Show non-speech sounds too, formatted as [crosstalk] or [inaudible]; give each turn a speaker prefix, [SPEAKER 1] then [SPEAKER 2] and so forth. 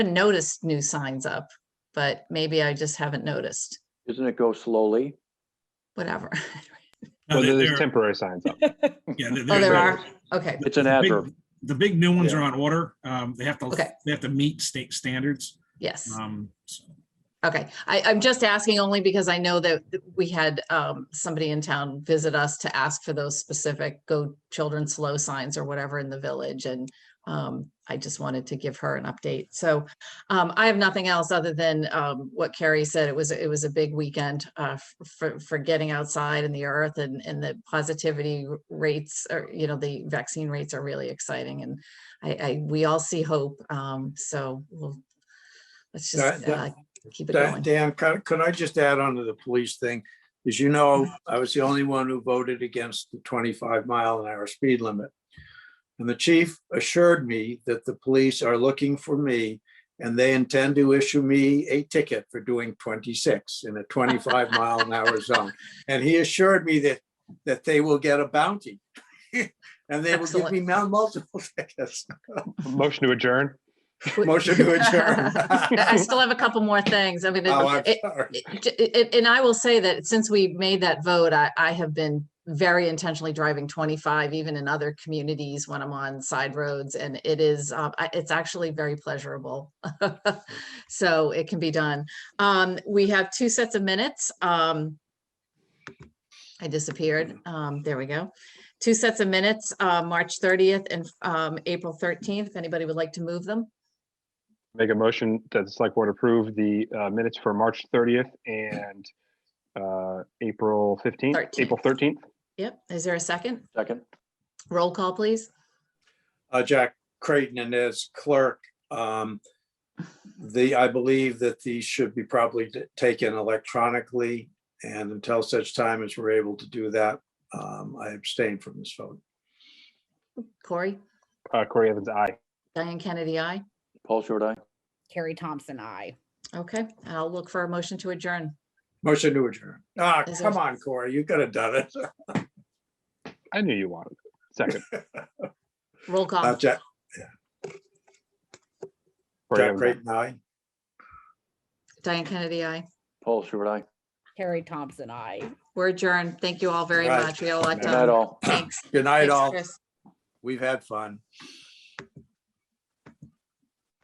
[SPEAKER 1] noticed new signs up, but maybe I just haven't noticed,
[SPEAKER 2] Isn't it go slowly?
[SPEAKER 1] whatever. [laughs]
[SPEAKER 3] No,
[SPEAKER 4] Well,
[SPEAKER 3] they-
[SPEAKER 4] there's
[SPEAKER 3] they're-
[SPEAKER 4] temporary signs up.
[SPEAKER 3] [laughs] Yeah, they're-
[SPEAKER 1] Oh,
[SPEAKER 3] they're-
[SPEAKER 1] there
[SPEAKER 3] they're-
[SPEAKER 1] are? Okay,
[SPEAKER 2] It's an
[SPEAKER 3] the big-
[SPEAKER 2] adverb.
[SPEAKER 3] The big new ones
[SPEAKER 4] Yeah.
[SPEAKER 3] are on order. Um, they have to,
[SPEAKER 1] Okay.
[SPEAKER 3] they have to meet state standards.
[SPEAKER 1] yes.
[SPEAKER 3] Um, so-
[SPEAKER 1] Okay, I, I'm just asking only because I know that th- we had um, somebody in town visit us to ask for those specific go children slow signs or whatever in the village and um, I just wanted to give her an update. So um, I have nothing else other than um, what Carrie said. It was, it was a big weekend uh, f- for, for getting outside in the earth and, and the positivity r- rates or, you know, the vaccine rates are really exciting and I, I, we all see hope. Um, So we'll, let's just
[SPEAKER 5] That- that-
[SPEAKER 1] uh, keep it
[SPEAKER 5] Dan, [laughs]
[SPEAKER 1] going.
[SPEAKER 5] Dan, could could I just add on to the police thing? As you know,
[SPEAKER 1] Mm-hmm.
[SPEAKER 5] I was the only one who voted against the 25 mile an hour speed limit. And the chief assured me that the police are looking for me and they intend to issue me a ticket for doing 26 in a
[SPEAKER 1] [laughs]
[SPEAKER 5] 25 mile an hour zone. And he assured me that, that they will get a bounty. [laughs] And they will give me multiple [laughs] tickets.
[SPEAKER 4] Motion to adjourn.
[SPEAKER 1] Wait.
[SPEAKER 5] Motion to adjourn.
[SPEAKER 1] [laughs] I still have a couple more things. I mean,
[SPEAKER 5] Oh, I'm
[SPEAKER 1] it- it-
[SPEAKER 5] sorry.
[SPEAKER 1] it- it- it- and I will say that since we made that vote, I, I have been very intentionally driving 25, even in other communities when I'm on side roads. And it is, uh, I- it's actually very pleasurable. [laughs] So it can be done. Um, We have two sets of minutes. Um, I disappeared. Um, There we go. Two sets of minutes, uh, March 30th and um, April 13th, if anybody would like to move them.
[SPEAKER 4] Make a motion that the select board approve the uh, minutes for March 30th and uh, April 15th,
[SPEAKER 1] 13th.
[SPEAKER 4] April 13th.
[SPEAKER 1] Yep, is there a second?
[SPEAKER 2] Second,
[SPEAKER 1] Roll call, please.
[SPEAKER 5] uh, Jack Creighton and as clerk. um, The, I believe that these should be probably t- taken electronically, and until such time as we're able to do that, um, I abstain from this vote.
[SPEAKER 1] Corey,
[SPEAKER 4] Uh, Corey Evans, aye.
[SPEAKER 1] Diane Kennedy, I.
[SPEAKER 2] Paul Short, aye.
[SPEAKER 6] Carrie Thompson, I.
[SPEAKER 1] Okay, I'll look for a motion to adjourn.
[SPEAKER 5] Motion to adjourn. Ah,
[SPEAKER 1] Is Um, there-
[SPEAKER 5] come on, Corey, you could have done it.
[SPEAKER 4] I knew you wanted it. Second.
[SPEAKER 1] Roll
[SPEAKER 5] Uh,
[SPEAKER 1] call.
[SPEAKER 5] Jack,
[SPEAKER 4] Corey
[SPEAKER 5] Jack
[SPEAKER 4] Evans, aye.
[SPEAKER 5] Creighton, aye.
[SPEAKER 1] Diane Kennedy, I.
[SPEAKER 2] Paul Short, aye.
[SPEAKER 6] Carrie Thompson, I.
[SPEAKER 1] We're adjourned. Thank you all very
[SPEAKER 5] Right.
[SPEAKER 1] much. We got a lot
[SPEAKER 4] Good
[SPEAKER 2] Not
[SPEAKER 1] done.
[SPEAKER 2] all.
[SPEAKER 1] Thanks.
[SPEAKER 5] Good night,
[SPEAKER 1] Thanks,
[SPEAKER 5] all.
[SPEAKER 1] Chris.
[SPEAKER 5] We've had fun.